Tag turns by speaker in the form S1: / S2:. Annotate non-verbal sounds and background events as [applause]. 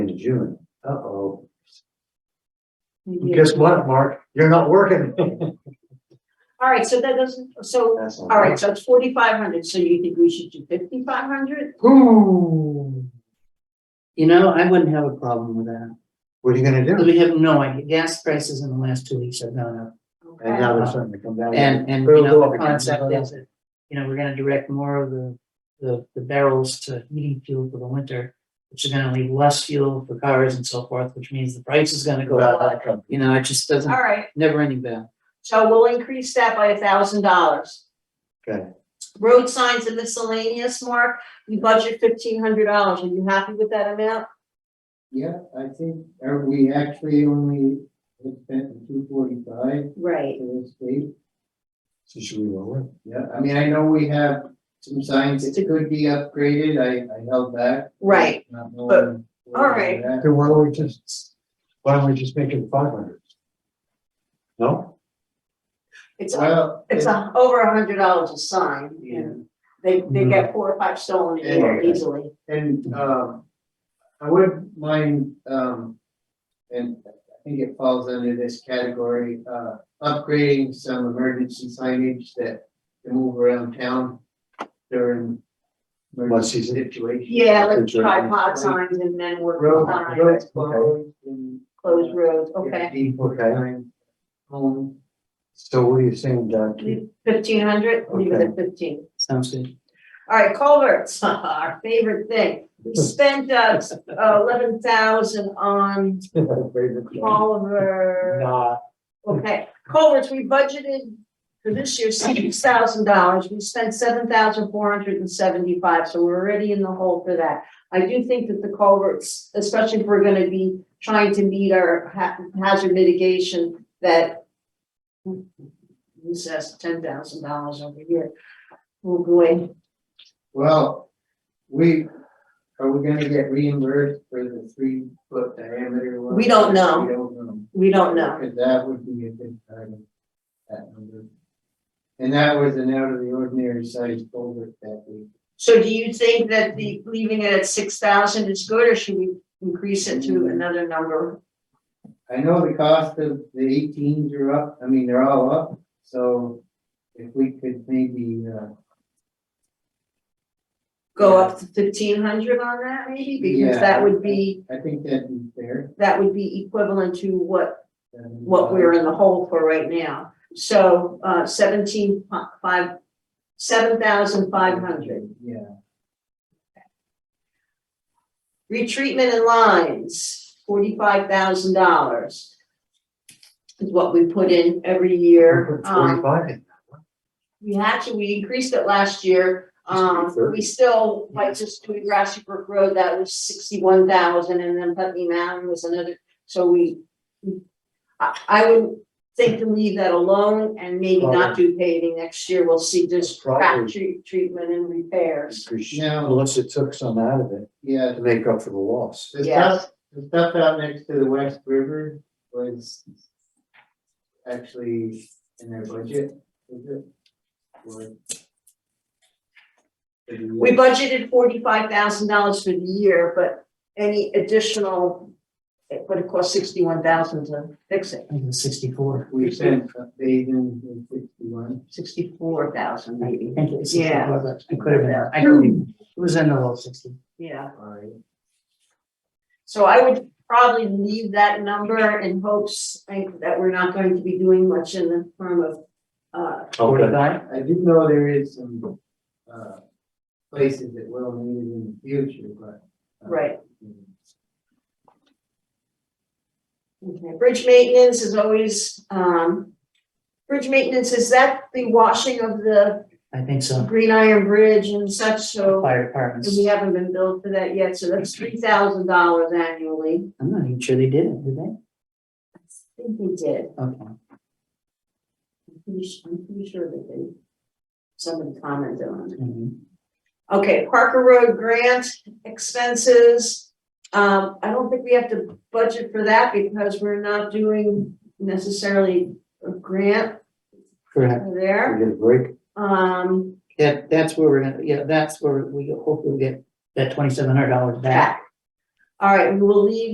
S1: June. Uh-oh.
S2: Maybe-
S1: Guess what, Mark? You're not
S3: [laughs]
S1: working.
S2: All right, so that doesn't, so,
S1: That's
S2: all right, so it's forty-five hundred, so you think we should do fifty-five hundred?
S1: Ooh,
S4: You know, I wouldn't have a problem with that.
S1: what are you gonna
S4: Because
S1: do?
S4: we have no idea. Gas prices in the last two weeks have gone up.
S1: And now they're starting to come down.
S4: And, and, you
S1: It'll go
S4: know,
S1: up
S4: the
S1: again.
S4: concept is that, you know, we're gonna direct more of the, the, the barrels to heating fuel for the winter, which is gonna leave less fuel for cars and so forth, which means the price is gonna go up. You know, it just doesn't,
S2: All right,
S4: never ending battle.
S2: so we'll increase that by a thousand dollars.
S1: Okay.
S2: Road signs and miscellaneous, Mark, you budget fifteen hundred dollars, are you happy with that amount?
S3: Yeah, I think, are we actually only spent two forty-five
S2: Right.
S3: for the state?
S1: So should we roll it?
S3: Yeah, I mean, I know we have some signs that could be upgraded, I, I held back.
S2: Right,
S3: Not knowing
S2: all right.
S3: where
S1: Then why don't we just, why don't we just make it five hundred? No?
S2: it's,
S3: we're at. Well.
S2: it's a, over a hundred dollars a sign,
S3: Yeah,
S2: and they, they get four or five stolen a year
S1: Mm-hmm. Yeah.
S2: easily.
S3: and, um, I wouldn't mind, um, and I think it falls under this category, uh, upgrading some emergency signage that can move around town during emergency
S1: season.
S3: situations.
S2: Yeah, like
S1: Good job.
S2: tripod signs and then work
S3: Road, road
S2: signs,
S3: closed and.
S2: closed roads, okay.
S3: People
S1: Okay.
S3: time, home.
S1: So what are you saying, Doug? [laughs]
S2: Fifteen hundred, leave it at fifteen.
S4: Sounds good.
S2: All right, culverts, [laughs] our favorite thing. We
S1: [laughs]
S2: spent uh eleven thousand on culvert.
S1: Nah,
S2: Okay, culverts, we budgeted for this year six thousand dollars. We spent seven thousand four hundred and seventy-five, so we're already in the hole for that. I do think that the culverts, especially if we're gonna be trying to meet our ha- hazard mitigation that this has ten thousand dollars over here. We'll go in.
S3: Well, we, are we gonna get reimbursed for the three foot diameter one?
S2: We don't know.
S3: We don't know.
S2: We don't know.
S3: Cause that would be a good time, that number. And that was an out of the ordinary size culvert that we.
S2: So do you think that the, leaving it at six thousand is good, or should we increase it to another number?
S3: I know the cost of the eighteens are up, I mean, they're all up, so if we could maybe, uh,
S2: Go up to fifteen hundred on that maybe, because
S3: Yeah.
S2: that would be,
S3: I think that'd be fair.
S2: that would be equivalent to what,
S3: um,
S2: what we're in the hole for right now. So, uh, seventeen fi- five, seven thousand five hundred.
S3: Uh, Yeah.
S2: Retreatment and lines, forty-five thousand dollars. Is what we put in every year.
S1: put
S2: Um,
S1: forty-five in.
S2: We actually, we increased it last year.
S1: Used to be
S2: Um,
S1: 30.
S2: we still, like just doing Grassy Brook Road, that was sixty-one thousand and then Putney Mountain was another, so we. I, I would think to leave that alone and maybe not do paving next year. We'll see just crack
S1: Probably.
S2: tre- treatment and repairs.
S3: Now-
S1: Unless it took some out of it
S3: Yeah,
S1: to make up for the loss.
S3: the
S2: Yeah.
S3: stuff, the stuff out next to the West River was actually in their budget, was it? Or-
S2: We budgeted forty-five thousand dollars for the year, but any additional, it would have cost sixty-one thousand to fix it,
S4: I think it was sixty-four.
S3: We spent bathing in sixty-one.
S2: sixty-four thousand
S4: I
S2: maybe,
S4: think it was
S2: Yeah.
S4: 64, but It could have been, I could, it was in the low sixty.
S2: yeah.
S3: Alright.
S2: So I would probably leave that number in hopes like, that we're not going to be doing much in the form of, uh,
S4: Forty-five?
S3: I do know there is some, uh, places that will need it in the future, but. uh,
S2: right. Okay, bridge maintenance is always, um, bridge maintenance, is that the washing of the
S4: I think so.
S2: Green Iron Bridge and such, so
S4: Fire
S2: and
S4: departments.
S2: we haven't been billed for that yet, so that's three thousand dollars annually.
S4: I'm not even sure they did it, did they?
S2: I think we did.
S4: Okay.
S2: I'm pretty, su- I'm pretty sure that they, somebody commented on it.
S4: Mhm.
S2: Okay, Parker Road grant expenses. Um, I don't think we have to budget for that because we're not doing necessarily a grant
S4: Correct.
S1: We
S2: there.
S1: get a break.
S2: Um,
S4: That, that's where we're gonna, yeah, that's where we hopefully get that twenty-seven hundred dollars back.
S2: back. All right, we will leave